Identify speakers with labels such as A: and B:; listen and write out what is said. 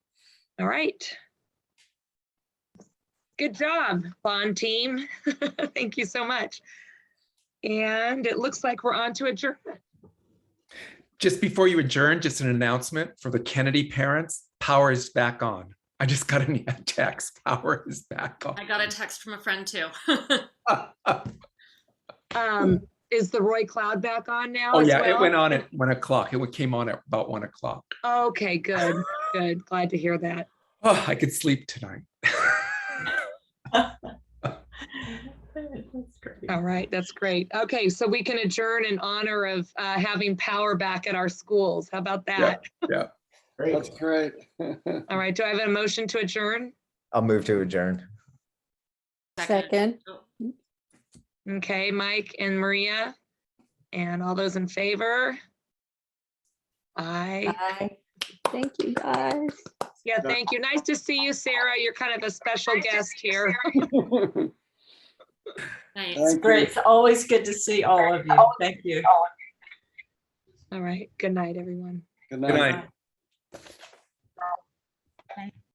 A: All right. Good job, bond team. Thank you so much. And it looks like we're on to adjournment.
B: Just before you adjourn, just an announcement for the Kennedy parents, power is back on. I just got a text, power is back
C: I got a text from a friend too.
B: on.
A: Um, Is the Roy Cloud back on now?
B: Oh,
A: as
B: yeah, it
A: well?
B: went on at one o'clock. It came on at about one o'clock.
A: Okay, good, good. Glad to hear that.
B: Oh, I could sleep tonight.
D: That's great.
A: All right, that's great. Okay, so we can adjourn in honor of uh, having power back at our schools. How about that?
E: That's great.
A: All right, do I have a motion to adjourn?
F: I'll move to adjourn.
G: Second.
C: Oh,
A: Okay, Mike and Maria, and all those in favor? Aye.
G: Bye. Thank you, guys.
A: Yeah, thank you. Nice to see you, Sarah. You're kind of a special guest here.
C: Nice.
E: Thank you.
D: Great. It's always good to see all of you. Thank you.
A: All right, good night, everyone.
E: Good
B: Good
E: night.
B: night.